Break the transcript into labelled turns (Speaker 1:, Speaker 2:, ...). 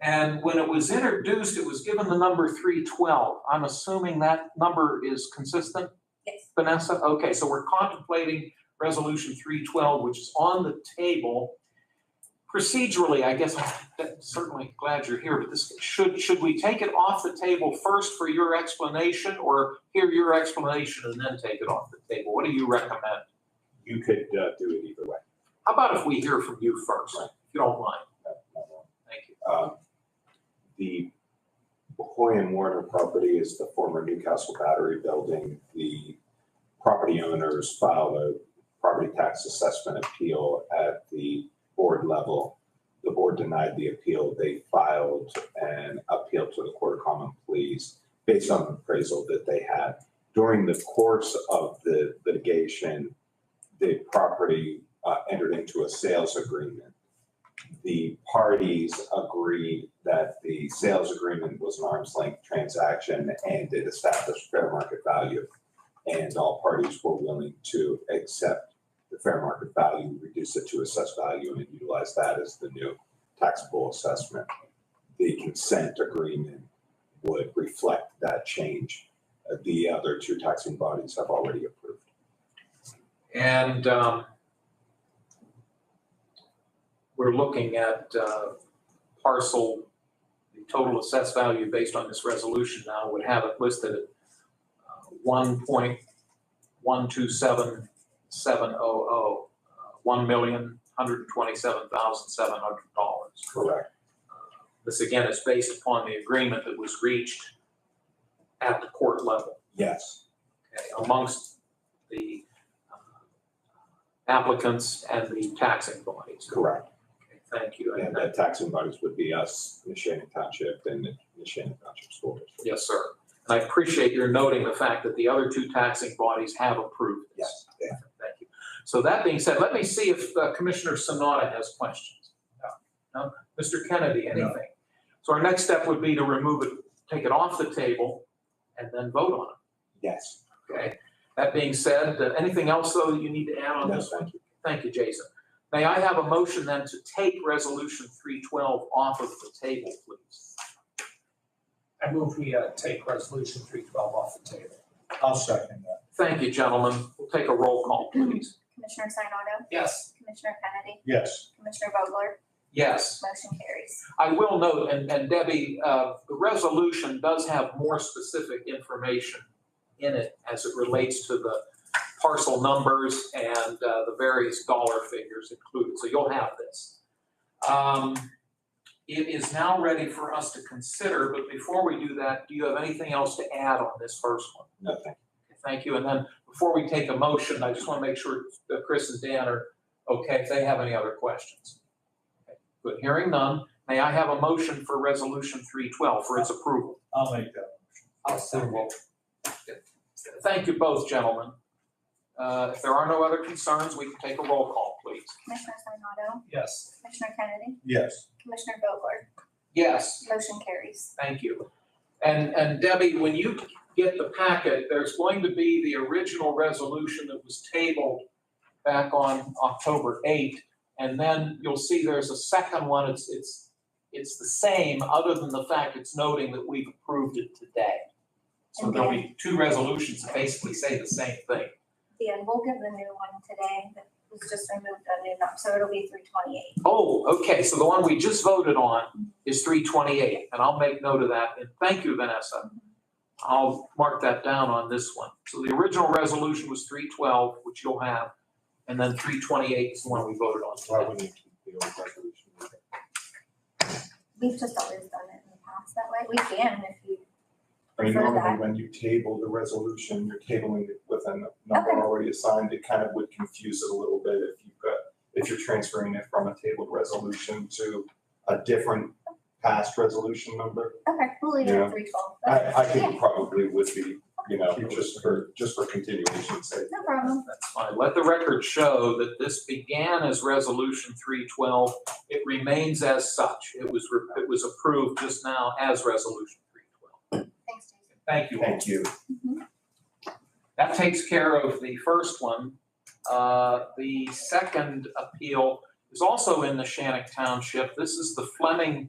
Speaker 1: And when it was introduced, it was given the number three twelve. I'm assuming that number is consistent,
Speaker 2: Yes,
Speaker 1: Vanessa? Okay, so we're contemplating resolution three twelve, which is on the table. Procedurally, I guess, I'm certainly glad you're here, but this, should, should we take it off the table first for your explanation? Or hear your explanation and then take it off the table? What do you recommend?
Speaker 3: You could uh, do it either way.
Speaker 1: How about if we hear from you first, if you don't mind? Thank you.
Speaker 3: Um, The Hoy and Warner property is the former Newcastle Battery Building. The property owners filed a property tax assessment appeal at the board level. The board denied the appeal. They filed an appeal to the Court of Common Pleas based on appraisal that they had. During the course of the litigation, the property uh, entered into a sales agreement the parties agreed that the sales agreement was an arm's length transaction and it established fair market value. And all parties were willing to accept the fair market value, reduce it to assessed value, and utilize that as the new taxable assessment. The consent agreement would reflect that change. Uh, The other two taxing bodies have already approved.
Speaker 1: And um, we're looking at uh, parcel, the total assessed value based on this resolution now would have it listed at uh, one point one two seven seven oh oh, one million, hundred and twenty-seven thousand, seven hundred dollars.
Speaker 3: Correct.
Speaker 1: This again is based upon the agreement that was reached at the court level
Speaker 3: Yes,
Speaker 1: okay, amongst the uh, applicants and the taxing bodies.
Speaker 3: correct.
Speaker 1: Okay, Thank you.
Speaker 3: And
Speaker 1: And,
Speaker 3: the
Speaker 1: that-
Speaker 3: taxing bodies would be us, the Shannon Township and the- the Shannon Township School District.
Speaker 1: yes, sir. And I appreciate your noting the fact that the other two taxing bodies have approved this.
Speaker 3: Yes, yeah.
Speaker 1: Thank you. So that being said, let me see if uh, Commissioner Sanada has questions. No? No? Mr. Kennedy, anything? So our next step would be to remove it, take it off the table, and then vote on
Speaker 3: yes,
Speaker 1: it, okay? That being said, uh, anything else, though, that you need to add on
Speaker 3: no,
Speaker 1: this
Speaker 3: thank you.
Speaker 1: Thank you, Jason. May I have a motion then to take Resolution 312 off of the table, please?
Speaker 4: I move we uh, take resolution three twelve off the table. I'll second that.
Speaker 1: Thank you, gentlemen. We'll take a roll call, please.
Speaker 2: Commissioner Sinata,
Speaker 4: Yes.
Speaker 2: Commissioner Kennedy,
Speaker 4: Yes.
Speaker 2: Commissioner Vogler,
Speaker 1: Yes,
Speaker 2: motion carries.
Speaker 1: I will note, and and Debbie, uh, the resolution does have more specific information in it as it relates to the parcel numbers and uh, the various dollar figures included, so you'll have this. Um, It is now ready for us to consider, but before we do that, do you have anything else to add on this first one?
Speaker 3: No, thank
Speaker 1: Thank you. And then before we take a motion, I just want to make sure that Chris and Dan are okay, if they have any other questions. But hearing none, may I have a motion for Resolution 312 for its approval?
Speaker 4: I'll make that motion. I'll second.
Speaker 1: Thank you both, gentlemen. Uh, If there are no other concerns, we can take a roll call, please.
Speaker 2: Commissioner Sinata,
Speaker 4: Yes.
Speaker 2: Commissioner Kennedy,
Speaker 4: Yes.
Speaker 2: Commissioner Vogler,
Speaker 1: Yes.
Speaker 2: motion carries.
Speaker 1: Thank you. And, and Debbie, when you get the packet, there's going to be the original resolution that was tabled back on October 8. And then you'll see there's a second one. It's, it's, it's the same, other than the fact it's noting that we've approved it today. So there'll be two resolutions that basically say the same thing.
Speaker 2: Yeah, and we'll give the new one today that was just removed on new number, so it'll be three twenty-eight.
Speaker 1: Oh, okay, so the one we just voted on is three twenty-eight, and I'll make note of that, and thank you, Vanessa. I'll mark that down on this one. So the original resolution was three twelve, which you'll have, and then three twenty-eight is the one we voted on.
Speaker 3: you. Why wouldn't you keep the old resolution?
Speaker 2: We've just always done it in the past that way. We can if you
Speaker 3: I mean,
Speaker 2: prefer
Speaker 3: normally
Speaker 2: that.
Speaker 3: when you table the resolution, you're tabling it with a n- number
Speaker 2: Okay.
Speaker 3: already assigned. It kind of would confuse it a little bit if you've got, if you're transferring it from a tabled resolution to a different past resolution number.
Speaker 2: Okay, we'll leave it
Speaker 3: Yeah.
Speaker 2: at three twelve.
Speaker 3: I, I think probably would be, you know, just for, just for continuation's sake.
Speaker 2: No problem.
Speaker 1: That's fine. Let the record show that this began as resolution three twelve. It remains as such. It was, re- it was approved just now as resolution three twelve.
Speaker 2: Thanks, Jason. Mm-hmm.
Speaker 1: Thank you all.
Speaker 3: Thank you.
Speaker 1: That takes care of the first one. Uh, The second appeal is also in the Shannick Township. This is the Fleming